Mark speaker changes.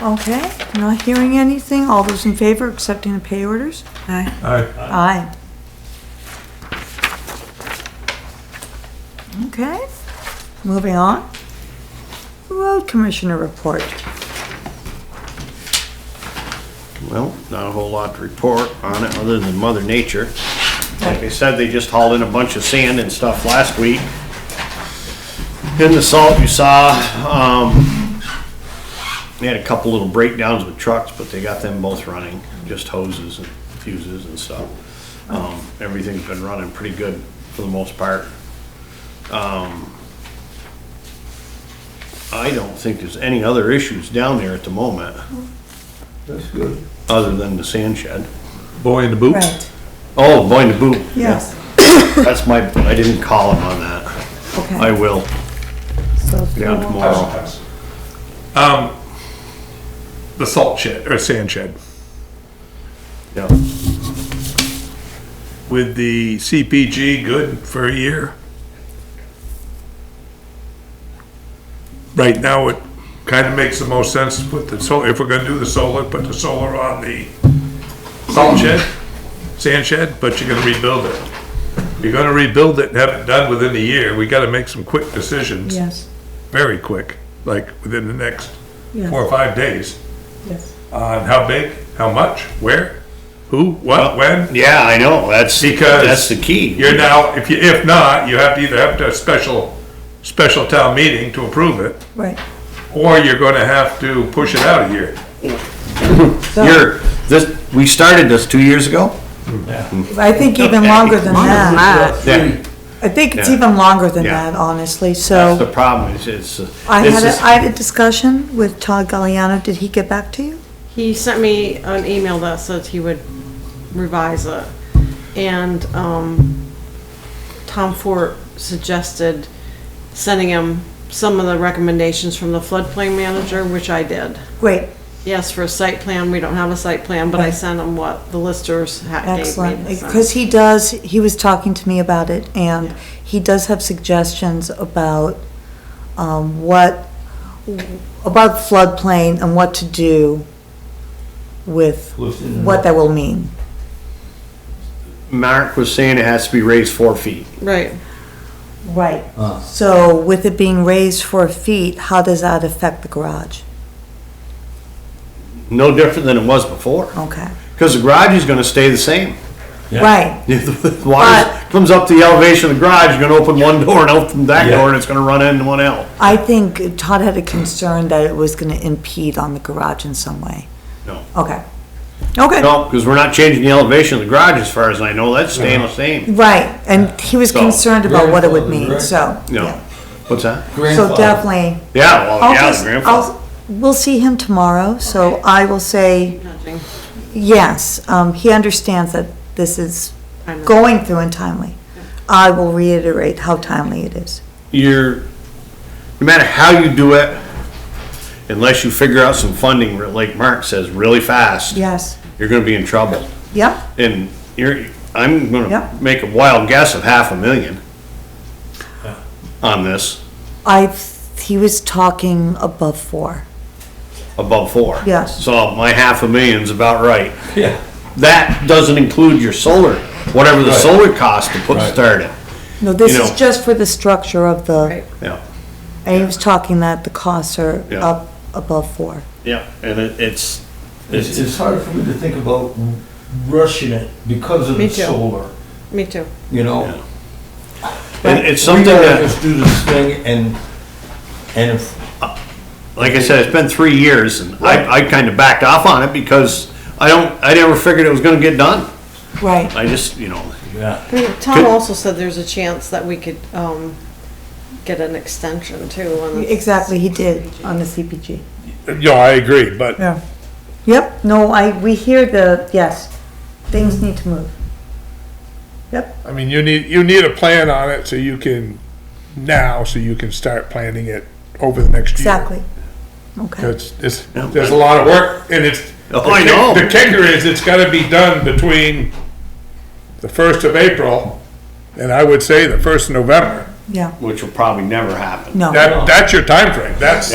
Speaker 1: Okay, not hearing anything. All those in favor accepting the pay orders? Aye.
Speaker 2: Aye.
Speaker 1: Aye. Okay, moving on. Road Commissioner report.
Speaker 3: Well, not a whole lot to report on it, other than Mother Nature. Like they said, they just hauled in a bunch of sand and stuff last week. In the salt you saw, um, they had a couple little breakdowns with trucks, but they got them both running, just hoses and fuses and stuff. Um, everything's been running pretty good for the most part. Um, I don't think there's any other issues down there at the moment
Speaker 2: That's good.
Speaker 3: other than the sand shed.
Speaker 2: Boy in the boot?
Speaker 3: Oh, boy in the boot.
Speaker 1: Yes,
Speaker 3: That's my, I didn't call him on that. I
Speaker 1: okay.
Speaker 3: will,
Speaker 1: So
Speaker 3: down tomorrow.
Speaker 2: Um, the salt shed, or sand shed.
Speaker 3: Yeah,
Speaker 2: With the CPG good for a year? Right now, it kind of makes the most sense to put the solar, if we're gonna do the solar, put the solar on the salt shed, sand shed, but you're gonna rebuild it. You're gonna rebuild it and have it done within a year. We gotta make some quick decisions.
Speaker 1: Yes,
Speaker 2: very quick, like within the next four
Speaker 1: yes,
Speaker 2: or five days,
Speaker 1: yes.
Speaker 2: on how big, how much, where, who, what, when.
Speaker 3: Yeah, I know, that's,
Speaker 2: Because
Speaker 3: that's the key.
Speaker 2: You're now, if you, if not, you have to either have to have a special, special town meeting to approve it,
Speaker 1: Right.
Speaker 2: or you're gonna have to push it out a year.
Speaker 1: So,
Speaker 3: You're, this, we started this two years ago?
Speaker 1: I think even longer than that.
Speaker 3: Yeah.
Speaker 1: I think it's
Speaker 3: Yeah.
Speaker 1: even longer than
Speaker 3: Yeah.
Speaker 1: that, honestly,
Speaker 3: That's
Speaker 1: so.
Speaker 3: the problem, is it's, uh,
Speaker 1: I
Speaker 3: this
Speaker 1: had,
Speaker 3: is-
Speaker 1: a I had a discussion with Todd Galliano. Did he get back to you?
Speaker 4: He sent me an email that said he would revise it. And, um, Tom Fort suggested sending him some of the recommendations from the floodplain manager, which I did.
Speaker 1: Great,
Speaker 4: Yes, for a site plan, we don't have a site plan, but I
Speaker 1: Right.
Speaker 4: sent him what the listers had gave
Speaker 1: excellent.
Speaker 4: me.
Speaker 1: Because he does, he was talking to me about it and he does have suggestions about, um, what, about floodplain and what to do with, what that will mean.
Speaker 3: Mark was saying it has to be raised four feet.
Speaker 4: Right,
Speaker 1: Right.
Speaker 3: Ah.
Speaker 1: So with it being raised four feet, how does that affect the garage?
Speaker 3: No different than it was before,
Speaker 1: Okay,
Speaker 3: because the garage is gonna stay the same.
Speaker 1: right,
Speaker 3: If the Water comes up to the elevation of the garage, you're gonna open one door and open that door, and it's gonna run into one else.
Speaker 1: I think Todd had a concern that it was gonna impede on the garage in some way.
Speaker 3: No.
Speaker 1: Okay. Okay,
Speaker 3: No, because we're not changing the elevation of the garage as far as I know, that's staying the same.
Speaker 1: right, and he was
Speaker 3: So-
Speaker 1: concerned about what it would mean,
Speaker 5: Grandfather,
Speaker 1: so.
Speaker 3: No.
Speaker 1: yeah.
Speaker 3: What's that?
Speaker 1: So definitely,
Speaker 3: Yeah, well,
Speaker 1: I'll
Speaker 3: yeah,
Speaker 1: just,
Speaker 3: the grandfather.
Speaker 1: I'll, we'll see him tomorrow, so
Speaker 4: Okay.
Speaker 1: I will say,
Speaker 4: nudging.
Speaker 1: yes, um, he understands that this is
Speaker 4: I know.
Speaker 1: going through and timely. I will reiterate how timely it is.
Speaker 3: You're, no matter how you do it, unless you figure out some funding, like Mark says, really fast,
Speaker 1: Yes,
Speaker 3: you're gonna be in trouble.
Speaker 1: yep,
Speaker 3: And you're, I'm gonna
Speaker 1: Yep.
Speaker 3: make a wild guess of half a million on this,
Speaker 1: I, he was talking above four.
Speaker 3: above four.
Speaker 1: Yes.
Speaker 3: So my half a million's about right.
Speaker 5: Yeah.
Speaker 3: That doesn't include your solar, whatever the
Speaker 5: Right.
Speaker 3: solar cost to put
Speaker 5: Right.
Speaker 3: started.
Speaker 1: No, this
Speaker 3: You
Speaker 1: is
Speaker 3: know.
Speaker 1: just for the structure of the,
Speaker 4: Right.
Speaker 3: Yeah.
Speaker 1: and he was talking that the costs are
Speaker 3: Yeah.
Speaker 1: up above four.
Speaker 3: Yeah, and it, it's,
Speaker 5: It's, it's hard for me to think about rushing it because of
Speaker 4: Me
Speaker 5: the
Speaker 4: too.
Speaker 5: solar,
Speaker 4: me too.
Speaker 5: you know?
Speaker 3: and it's
Speaker 5: We
Speaker 3: something
Speaker 5: gotta
Speaker 3: that.
Speaker 5: Just do this thing and, and if,
Speaker 3: like I said, it's been three years and I, I kind of backed off on it because I don't, I never figured it was gonna get done.
Speaker 1: Right.
Speaker 3: I just, you know,
Speaker 5: yeah,
Speaker 4: I mean, Tom
Speaker 3: Could-
Speaker 4: also said there's a chance that we could, um, get an extension too on the.
Speaker 1: Exactly, he did on the CPG.
Speaker 2: Yeah, I agree, but
Speaker 1: Yeah. Yep, no, I, we hear the, yes, things need to move.
Speaker 2: I mean, you need, you need a plan on it so you can, now, so you can start planning it over the next year.
Speaker 1: Exactly. Okay,
Speaker 2: It's, it's, there's a lot of work and it's.
Speaker 3: Oh, I know.
Speaker 2: The kicker is it's gotta be done between the first of April and I would say the first of November.
Speaker 1: yeah,
Speaker 3: which will probably never happen.
Speaker 1: no.
Speaker 2: That, that's your timeframe. That's,